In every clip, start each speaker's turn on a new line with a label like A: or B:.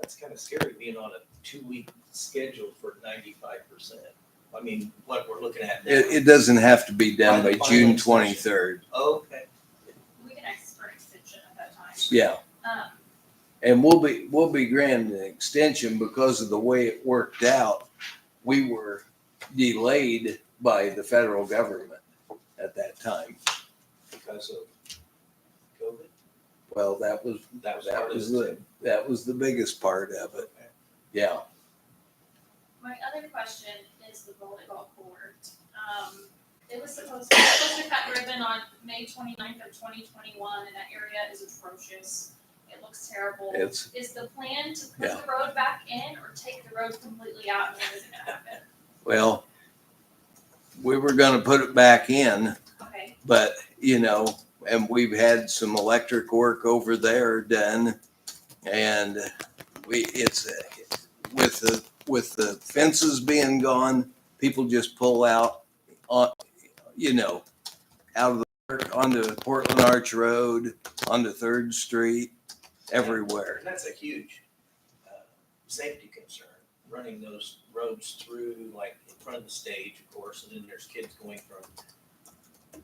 A: that's kind of scary being on a two-week schedule for ninety-five percent. I mean, what we're looking at now.
B: It, it doesn't have to be done by
A: Final
B: June
A: session.
B: twenty-third.
A: Okay,
C: We can ask for an extension at that time.
B: Yeah,
C: Um,
B: and we'll be, we'll be granted an extension because of the way it worked out. We were delayed by the federal government at that time.
A: because of COVID,
B: Well, that was,
A: that was
B: that
A: part
B: was
A: of it.
B: the, that was the biggest part of it.
A: Okay.
B: Yeah.
C: my other question is the volleyball court. Um, it was supposed, it was supposed to cut ribbon on May 29th of twenty twenty-one, and that area is atrocious. It looks terrible.
B: It's,
C: Is the plan to put
B: Yeah.
C: the road back in or take the road completely out and what is it gonna happen?
B: well, we were gonna put it back in,
C: Okay,
B: but, you know, and we've had some electric work over there done. And we, it's, uh, with the, with the fences being gone, people just pull out on, you know, out of the, onto Portland Arch Road, onto Third Street, everywhere.
A: And that's a huge uh, safety concern, running those roads through, like in front of the stage, of course, and then there's kids going from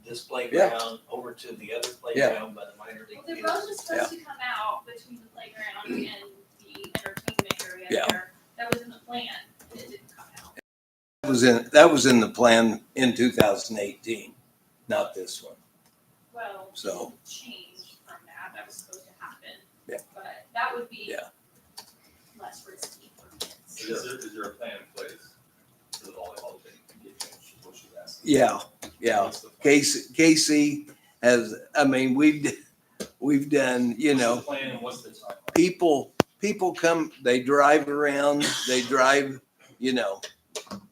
A: this playground over to the other playground by the minor
C: well,
A: league
C: the
A: field.
C: road was supposed to come out between the playground and the entertainment area
B: Yeah.
C: there. That was in the plan, and it didn't come out.
B: That was in, that was in the plan in two thousand eighteen, not this one.
C: Well, it
B: So-
C: didn't change from that, that was supposed to happen.
B: Yeah.
C: But that would be
B: Yeah.
C: less risky for kids.
D: Is there, is there a plan in place for the volleyball thing to get finished, is what she's asking?
B: Yeah, yeah.
D: What's the plan?
B: Casey, Casey has, I mean, we've, d- we've done, you know,
D: What's the plan and what's the timeline?
B: people, people come, they drive around, they drive, you know,
C: There's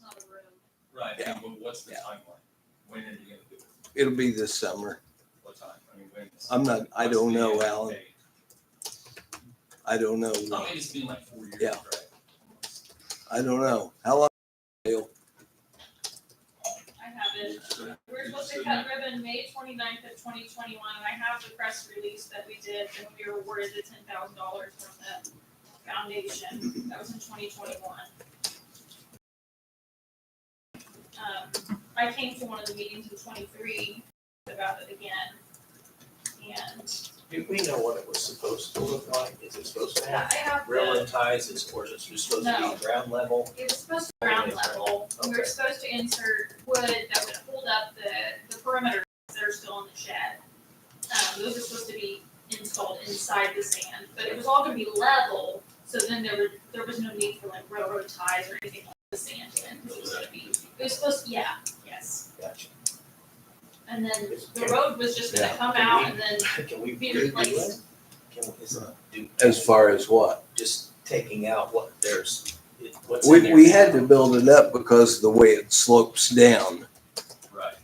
C: not a room.
D: Right,
B: Yeah.
D: but what's the
B: Yeah.
D: timeline? When are you gonna do it?
B: it'll be this summer.
D: What time? I mean, when?
B: I'm not, I don't know, Alan.
D: Alan.
B: I don't know.
D: I mean, it's been like four years,
B: Yeah.
D: right?
B: I don't know. How long?
C: I have it.
D: So-
C: We're supposed to cut ribbon May 29th of twenty twenty-one, and I have the press release that we did, and we were awarded the ten thousand dollars from the foundation, that was in twenty twenty-one. Um, I came to one of the meetings in twenty-three about it again, and
A: Do we know what it was supposed to look like? Is it supposed to
C: I
A: have
C: have the,
A: railroad ties, is, or is it just supposed
C: No.
A: to be ground level?
C: it was supposed to be ground level, we were
A: Okay.
C: supposed to insert wood that would hold up the, the perimeter that are still in the shed. Um, those are supposed to be installed inside the sand, but it was all gonna be level, so then there were, there was no need for like railroad ties or anything like the sand, and it was gonna be, it was supposed, yeah, yes.
A: Gotcha.
C: And then the road was just gonna come out and then
A: Can we
C: Be
A: redo it?
C: replaced.
A: Can we, is it, do?
B: As far as what?
A: Just taking out what there's, it- what's in
B: We,
A: there
B: we had to
A: now.
B: build it up because of the way it slopes down.
D: Right.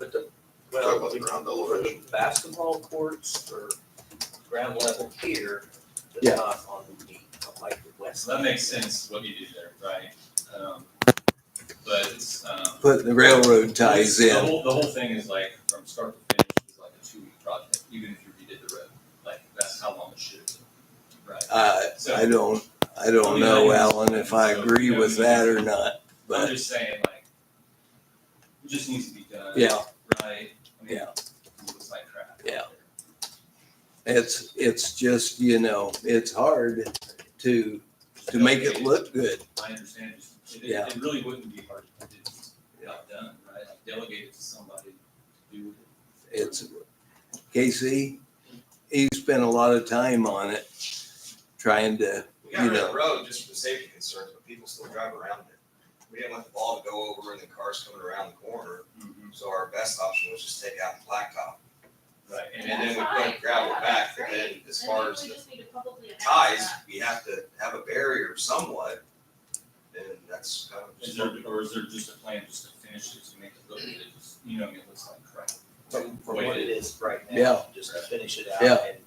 A: But the,
E: Talk
A: well,
E: about
A: we-
E: the ground level
A: for the
E: version.
A: basketball courts or ground level here, but
B: Yeah.
A: not on the, like the west.
D: So that makes sense, what you did there, right? Um, But, um.
B: Putting the railroad ties
D: The
B: in.
D: whole, the whole thing is like, from start to finish, is like a two-week project, even if you redid the road, like, that's how long it should have been, right?
B: Uh,
D: So-
B: I don't, I don't know, Alan, if I agree with that or not,
D: I'm
B: but
D: just saying, like, it just needs to be done.
B: yeah,
D: Right? I mean,
B: Yeah.
D: It looks like crap.
B: Yeah. it's, it's just, you know, it's hard to, to make it look good.
D: I understand, just, it,
B: Yeah.
D: it really wouldn't be hard if it was not done, right? Like delegate it to somebody to do it.
B: It's, Casey, he spent a lot of time on it, trying to,
E: We got rid
B: You
E: of
B: know.
E: the road just for the safety concerns, but people still drive around it. We didn't want the ball to go over and the cars coming around the corner,
B: Mm-hmm.
D: Mhm.
E: so our best option was just take out the blacktop.
D: Right,
E: And
D: and
E: then
C: that's
E: we
C: fine.
E: put gravel
C: Yeah,
E: back,
C: that's
E: and then
C: great.
E: as
C: And then
E: far as
C: we
E: the
C: just need to publicly announce
E: ties,
C: that.
E: we have to have a barrier somewhat. And that's kind of.
D: is there, or is there just a plan just to finish it, to make it look, good? it just, you know, I mean, it looks like crap?
A: From, from what it is right now.
B: Yeah.
A: Just to finish it out
B: Yeah.
A: and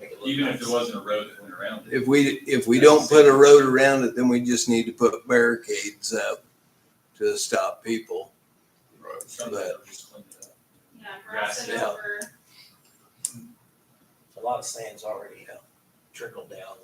A: make it look
D: Even if there
A: nice.
D: wasn't a road that went around it.
B: if we, if we don't put a road around it, then we just need to put barricades up to stop people.
E: Road.
D: Something, or just clean it up.
C: Yeah, grass it
B: Yeah.
C: over.
A: A lot of sand's already uh, trickled down